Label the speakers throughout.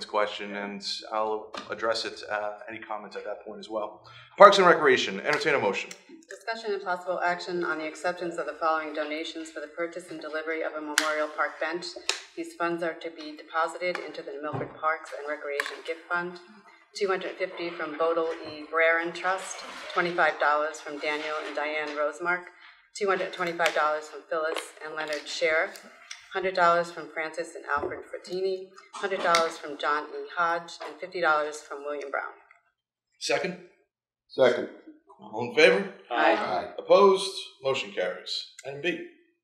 Speaker 1: this question, and I'll address it, uh, any comments at that point as well. Parks and Recreation, entertain a motion.
Speaker 2: Discussion and possible action on the acceptance of the following donations for the purchase and delivery of a memorial park bench. These funds are to be deposited into the Milford Parks and Recreation Gift Fund. Two hundred fifty from Bodel E. Breran Trust, twenty-five dollars from Daniel and Diane Rosemark, two hundred twenty-five dollars from Phyllis and Leonard Sheriff, hundred dollars from Francis and Alfred Frattini, hundred dollars from John E. Hodge, and fifty dollars from William Brown.
Speaker 1: Second.
Speaker 3: Second.
Speaker 1: All in favor?
Speaker 3: Aye.
Speaker 1: Opposed? Motion carries. Item B.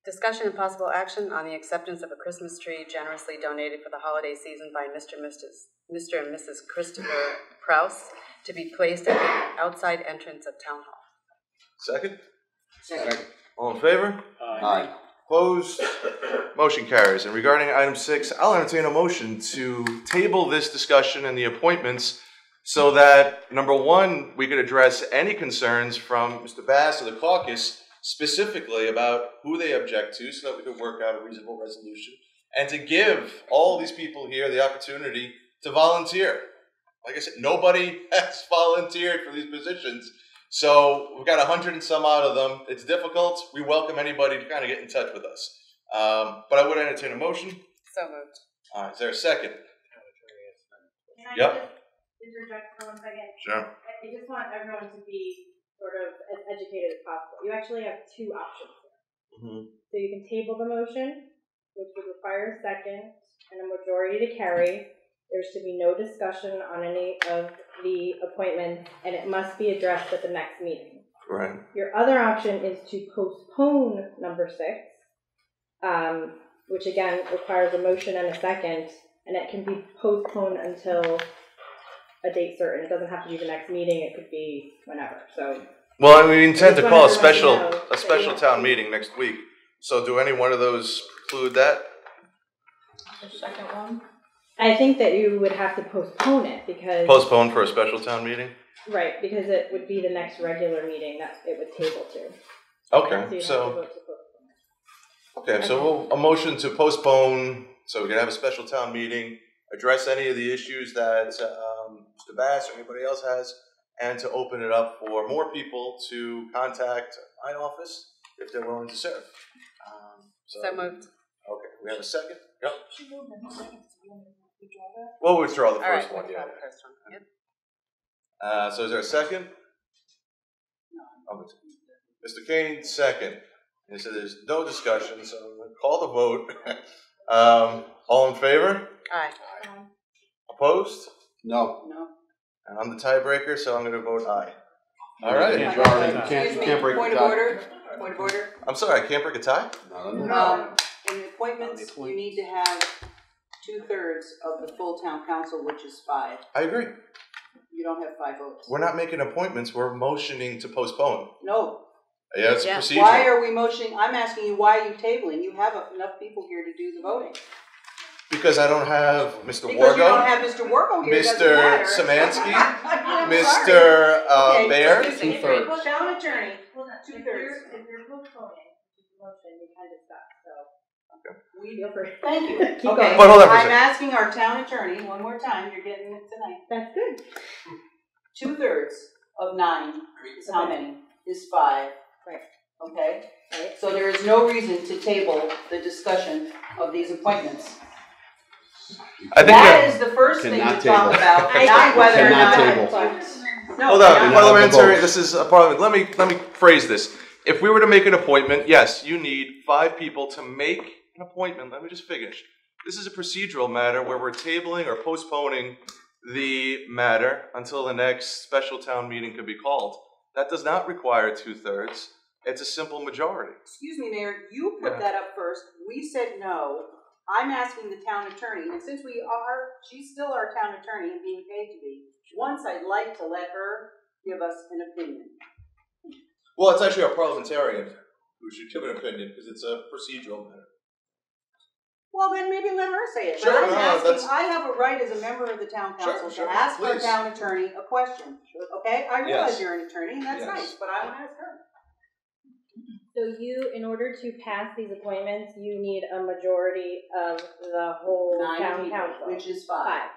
Speaker 2: Discussion and possible action on the acceptance of a Christmas tree generously donated for the holiday season by Mr. and Mrs. Mr. and Mrs. Christopher Prouse to be placed at the outside entrance of Town Hall.
Speaker 1: Second.
Speaker 3: Second.
Speaker 1: All in favor?
Speaker 3: Aye.
Speaker 1: Opposed? Motion carries. And regarding item six, I'll entertain a motion to table this discussion and the appointments so that, number one, we could address any concerns from Mr. Bass or the caucus specifically about who they object to so that we could work out a reasonable resolution and to give all these people here the opportunity to volunteer. Like I said, nobody has volunteered for these positions. So we've got a hundred and some out of them. It's difficult. We welcome anybody to kind of get in touch with us. Um, but I would entertain a motion.
Speaker 2: So moved.
Speaker 1: Uh, is there a second?
Speaker 4: Can I
Speaker 1: Yep.
Speaker 4: just interject for one second?
Speaker 1: Sure.
Speaker 4: I I just want everyone to be sort of as educated as possible. You actually have two options here. So you can table the motion, which would require a second and a majority to carry. There's to be no discussion on any of the appointments, and it must be addressed at the next meeting.
Speaker 1: Right.
Speaker 4: Your other option is to postpone number six, um, which again requires a motion and a second, and it can be postponed until a date certain. It doesn't have to be the next meeting, it could be whenever. So,
Speaker 1: Well, we intend to
Speaker 4: just
Speaker 1: call a
Speaker 4: wanted to let you
Speaker 1: special
Speaker 4: know
Speaker 1: a
Speaker 4: that
Speaker 1: special
Speaker 4: you-
Speaker 1: town meeting next week. So do any one of those preclude that?
Speaker 4: I think that you would have to postpone it because,
Speaker 1: Postpone for a special town meeting?
Speaker 4: right, because it would be the next regular meeting that it would table to.
Speaker 1: Okay.
Speaker 4: you'd have to
Speaker 1: So
Speaker 4: vote to postpone.
Speaker 1: okay. So we'll, a motion to postpone so we can have a special town meeting, address any of the issues that um, Mr. Bass or anybody else has, and to open it up for more people to contact my office if they're willing to serve. Um,
Speaker 2: So moved.
Speaker 1: Okay, we have a second? Yep. We'll withdraw the
Speaker 2: All right.
Speaker 1: first one,
Speaker 2: withdraw
Speaker 1: yeah.
Speaker 2: the first one. Yep.
Speaker 1: Uh, so is there a second? Oh, it's- Mr. Kane, second. And so there's no discussion, so I'm gonna call the vote. Um, all in favor?
Speaker 2: Aye.
Speaker 1: Opposed?
Speaker 3: No.
Speaker 1: And I'm the tiebreaker, so I'm gonna vote aye. All
Speaker 3: You
Speaker 1: right,
Speaker 3: Majority, you can't, you can't break the tie.
Speaker 5: Point of order, point of order.
Speaker 1: I'm sorry, I can't break a tie?
Speaker 3: No, no, no.
Speaker 5: Um, in the appointments, you need to have two-thirds of the full town council, which is five.
Speaker 1: I agree.
Speaker 5: You don't have five votes.
Speaker 1: We're not making appointments, we're motioning to postpone.
Speaker 5: No,
Speaker 1: Yeah, it's a
Speaker 2: Yeah.
Speaker 1: procedure.
Speaker 5: why are we motioning, I'm asking you, why are you tabling? You have enough people here to do the voting.
Speaker 1: Because I don't have Mr. Wargo.
Speaker 5: Because you don't have Mr. Wargo here, it doesn't
Speaker 1: Mr.
Speaker 5: matter.
Speaker 1: Szymanski,
Speaker 5: I'm sorry.
Speaker 1: Mr. Uh,
Speaker 5: Okay,
Speaker 1: Bear?
Speaker 5: excuse me.
Speaker 3: Two-thirds.
Speaker 4: Well, town attorney. Well,
Speaker 5: Two
Speaker 4: if you're,
Speaker 5: thirds.
Speaker 4: if you're postponing, the motion, you kind of stuck, so
Speaker 5: We-
Speaker 4: feel free.
Speaker 5: Thank you.
Speaker 4: Keep
Speaker 5: Okay.
Speaker 4: going.
Speaker 1: But hold on for a second.
Speaker 5: I'm asking our town attorney, one more time, you're getting it tonight.
Speaker 4: That's good.
Speaker 5: two-thirds of nine is how many? Is five.
Speaker 4: Right.
Speaker 5: Okay?
Speaker 4: Right.
Speaker 5: So there is no reason to table the discussion of these appointments.
Speaker 1: I think
Speaker 5: That
Speaker 1: that,
Speaker 5: is the first thing to
Speaker 3: Cannot
Speaker 5: talk about,
Speaker 4: I-
Speaker 5: not whether or
Speaker 3: Cannot
Speaker 5: not.
Speaker 3: table.
Speaker 5: No,
Speaker 1: hold on,
Speaker 5: cannot.
Speaker 3: Well,
Speaker 1: parliamentary,
Speaker 3: vote.
Speaker 1: this is a parliament, let me, let me phrase this. If we were to make an appointment, yes, you need five people to make an appointment, let me just finish. This is a procedural matter where we're tabling or postponing the matter until the next special town meeting could be called. That does not require two-thirds, it's a simple majority.
Speaker 5: Excuse me, Mayor, you
Speaker 1: Yeah.
Speaker 5: put that up first. We said no. I'm asking the town attorney, and since we are, she's still our town attorney and being paid to be, once I'd like to let her give us an opinion.
Speaker 1: Well, it's actually a parliamentarian who should give an opinion, because it's a procedural matter.
Speaker 5: Well, then maybe let her say it.
Speaker 1: Sure,
Speaker 5: but I'm
Speaker 1: no, no,
Speaker 5: asking,
Speaker 1: that's-
Speaker 5: I have a right as a member of the town
Speaker 1: Sure,
Speaker 5: council
Speaker 1: sure,
Speaker 5: to ask our
Speaker 1: please.
Speaker 5: town attorney a question. Okay, I realize
Speaker 1: Yes.
Speaker 5: you're an attorney, and that's
Speaker 1: Yes.
Speaker 5: nice, but I want to ask her.
Speaker 4: So you, in order to pass these appointments, you need a majority of the whole
Speaker 5: Nine
Speaker 4: town
Speaker 5: people,
Speaker 4: council.
Speaker 5: which is five.
Speaker 4: Five,